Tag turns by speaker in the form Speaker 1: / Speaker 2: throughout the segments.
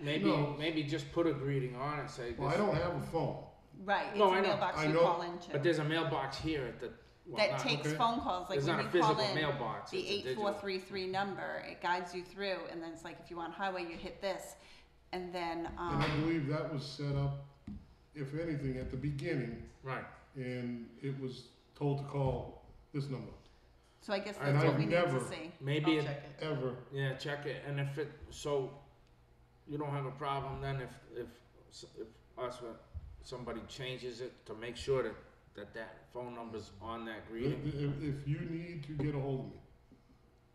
Speaker 1: Maybe,
Speaker 2: No.
Speaker 1: maybe just put a greeting on it, say
Speaker 2: Well, I
Speaker 1: this,
Speaker 2: don't have a phone.
Speaker 3: Right, it's
Speaker 1: No, I
Speaker 3: a
Speaker 1: know,
Speaker 3: mailbox
Speaker 2: I
Speaker 3: you
Speaker 2: know,
Speaker 3: call into.
Speaker 1: but there's a mailbox here at the, well,
Speaker 3: That
Speaker 1: not,
Speaker 3: takes
Speaker 2: okay.
Speaker 3: phone calls, like
Speaker 1: there's
Speaker 3: when
Speaker 1: not
Speaker 3: you
Speaker 1: a
Speaker 3: call
Speaker 1: physical
Speaker 3: in
Speaker 1: mailbox,
Speaker 3: the
Speaker 1: it's a
Speaker 3: eight
Speaker 1: digital.
Speaker 3: four three three number, it guides you through, and then it's like, if you want highway, you hit this, and then,
Speaker 2: And I
Speaker 3: um,
Speaker 2: believe that was set up, if anything, at the beginning,
Speaker 1: Right,
Speaker 2: and it was told to call this number,
Speaker 3: so I guess
Speaker 1: And
Speaker 3: that's what
Speaker 1: I've
Speaker 3: we need to
Speaker 2: never-
Speaker 3: see.
Speaker 1: maybe, it-
Speaker 4: check it.
Speaker 2: ever.
Speaker 1: yeah, check it, and if it, so, you don't have a problem then if, if, s- if us, uh, somebody changes it to make sure that, that that phone number's on that
Speaker 2: If,
Speaker 1: greeting?
Speaker 2: if- if you need to get a hold of me,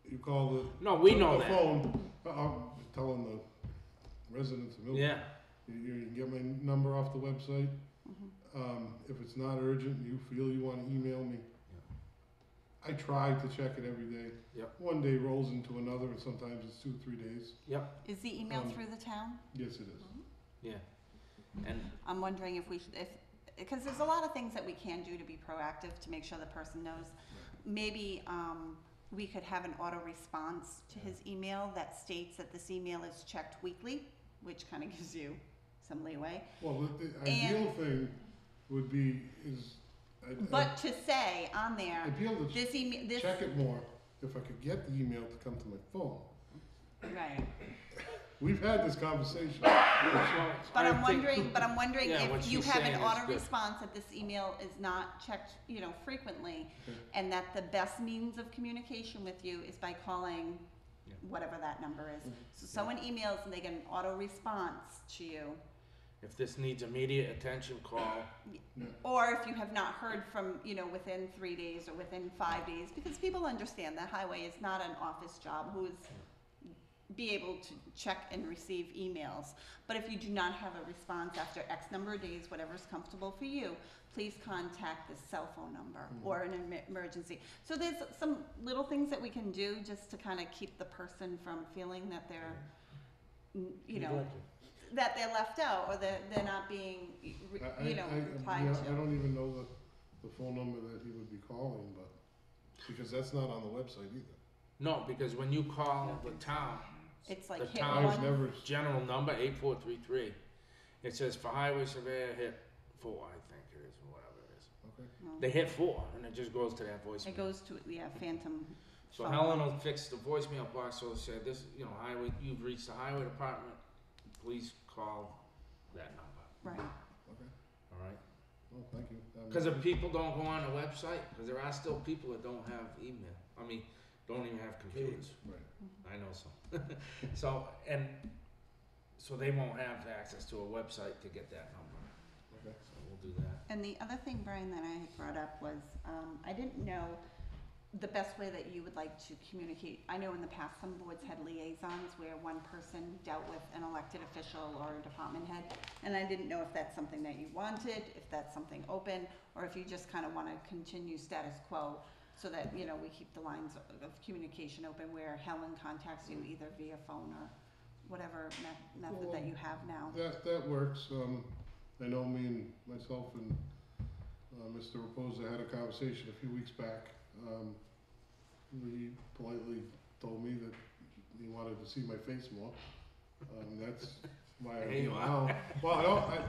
Speaker 2: you call the.
Speaker 1: No, we know
Speaker 2: the
Speaker 1: that,
Speaker 2: phone. I- I'm telling the residents of Milton.
Speaker 1: yeah,
Speaker 2: You, you can get my number off the website.
Speaker 3: Mhm.
Speaker 2: Um, if it's not urgent, and you feel you want to email me. I try to check it every day.
Speaker 1: Yep.
Speaker 2: One day rolls into another, and sometimes it's two, three days.
Speaker 3: Is the email
Speaker 2: Um,
Speaker 3: through the town?
Speaker 2: Yes, it is.
Speaker 1: and,
Speaker 3: I'm wondering if we should, if, because there's a lot of things that we can do to be proactive, to make sure the person knows. Maybe, um, we could have an auto response to his email that states that this email is checked weekly, which kind of gives you some leeway.
Speaker 2: Well, the, the
Speaker 3: And-
Speaker 2: ideal thing would be is. I,
Speaker 3: But to say on
Speaker 2: I,
Speaker 3: there,
Speaker 2: ideal to
Speaker 3: this email, this,
Speaker 2: check it more if I could get the email to come to my phone.
Speaker 3: right.
Speaker 2: We've had this conversation.
Speaker 1: so,
Speaker 3: But
Speaker 1: I
Speaker 3: I'm
Speaker 1: think-
Speaker 3: wondering, but I'm wondering
Speaker 1: Yeah, what
Speaker 3: if you
Speaker 1: she's
Speaker 3: have an
Speaker 1: saying is
Speaker 3: auto
Speaker 1: good.
Speaker 3: response that this email is not checked, you know, frequently,
Speaker 2: Okay.
Speaker 3: and that the best means of communication with you is by calling
Speaker 1: Yeah.
Speaker 3: whatever that number
Speaker 2: Mm.
Speaker 3: is. So someone emails and they get an auto response to you,
Speaker 1: If this needs immediate attention, call,
Speaker 3: or if you have not heard from, you know, within three days or within five days, because people understand that highway is not an office job who is be able to check and receive emails. But if you do not have a response after X number of days, whatever's comfortable for you, please contact the cell phone number
Speaker 2: Mhm.
Speaker 3: or an em- emergency. So there's some little things that we can do just to kind of keep the person from feeling that they're, n- you know, that they're left out or that they're not being, y- re-
Speaker 2: I- I-
Speaker 3: you know,
Speaker 2: I-
Speaker 3: replied
Speaker 2: yeah,
Speaker 3: to.
Speaker 2: I don't even know the, the phone number that he would be calling, but, because that's not on the website either.
Speaker 1: no, because when you call the town,
Speaker 3: It's
Speaker 1: the
Speaker 3: like hit
Speaker 1: town
Speaker 2: I was
Speaker 3: one,
Speaker 2: never,
Speaker 1: general number eight four three three. It says for highway surveyor hit four, I think it is, or whatever it is.
Speaker 2: okay,
Speaker 3: no.
Speaker 1: They hit four, and it just goes to that
Speaker 3: it
Speaker 1: voicemail.
Speaker 3: goes to, yeah, phantom.
Speaker 1: So
Speaker 3: phone.
Speaker 1: Helen will fix the voicemail box. So it said this, you know, highway. You've reached the highway department. Please call that number.
Speaker 3: Right,
Speaker 2: okay,
Speaker 1: All right.
Speaker 2: well, thank you. Um,
Speaker 1: Because if people don't go on the website, because there are still people that don't have email. I mean, don't even have computers.
Speaker 2: Right,
Speaker 1: I know some. so and so they won't have access to a website to get that number.
Speaker 2: okay.
Speaker 1: So we'll do that.
Speaker 3: And the other thing, Brian, that I had brought up was, um, I didn't know the best way that you would like to communicate. I know in the past, some boards had liaisons where one person dealt with an elected official or a department head. And I didn't know if that's something that you wanted, if that's something open, or if you just kind of want to continue status quo so that, you know, we keep the lines of- of communication open where Helen contacts you either via phone or whatever me- method that you have now.
Speaker 2: That, that works, um, I know me and myself and, uh, Mr. Reposa had a conversation a few weeks back. Um, he politely told me that he wanted to see my face more, um, that's why
Speaker 1: There
Speaker 2: I'm
Speaker 1: you
Speaker 2: here
Speaker 1: are.
Speaker 2: now. Well, I don't, I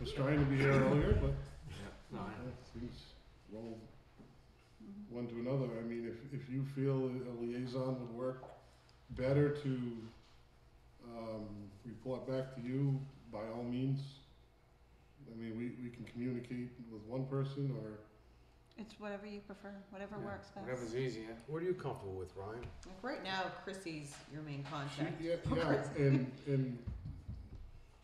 Speaker 2: was trying to be here earlier, but
Speaker 1: Yeah. No, I know.
Speaker 2: Yeah, Things roll
Speaker 3: Mhm.
Speaker 2: one to another. I mean, if, if you feel a liaison would work better to, um, report back to you, by all means. I mean, we, we can communicate with one person or,
Speaker 3: It's whatever you prefer, whatever
Speaker 1: Yeah,
Speaker 3: works best.
Speaker 1: Whatever's easier.
Speaker 5: What are you comfortable with, Ryan?
Speaker 4: Like right now, Chrissy's your main
Speaker 2: she,
Speaker 4: contact.
Speaker 2: yeah, yeah, and, and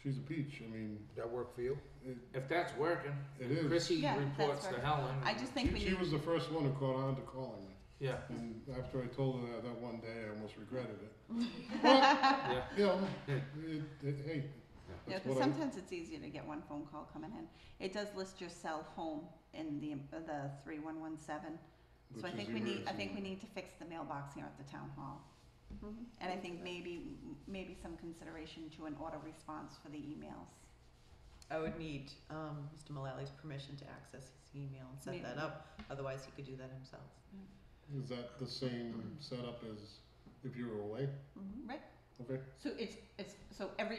Speaker 2: she's a peach. I mean,
Speaker 5: Does that work for you?
Speaker 2: it,
Speaker 1: If that's working,
Speaker 2: it is.
Speaker 1: Chrissy
Speaker 3: Yeah, that's
Speaker 1: reports to
Speaker 3: working.
Speaker 1: Helen.
Speaker 3: I just think we
Speaker 2: She, she
Speaker 3: need,
Speaker 2: was the first one who caught on to calling me.
Speaker 1: Yeah,
Speaker 2: And after I told her that, that one day, I almost regretted it. But,
Speaker 1: yeah.
Speaker 2: you know, it, it, hey,
Speaker 3: yeah,
Speaker 2: that's
Speaker 3: because
Speaker 2: what I,
Speaker 3: sometimes it's easier to get one phone call coming in. It does list your cell home in the, uh, the three one one seven. So I
Speaker 2: Which is
Speaker 3: think we need, I
Speaker 2: emergency.
Speaker 3: think we need to fix the mailbox here at the town hall. And I think maybe, maybe some consideration to an auto response for the emails.
Speaker 4: I would need um, Mr. Mullally's permission to access his email and set
Speaker 3: Maybe.
Speaker 4: that up. Otherwise, he could do that himself.
Speaker 2: Is that the same setup as if you were away?
Speaker 3: Right,
Speaker 2: Okay.
Speaker 3: so it's, it's, so every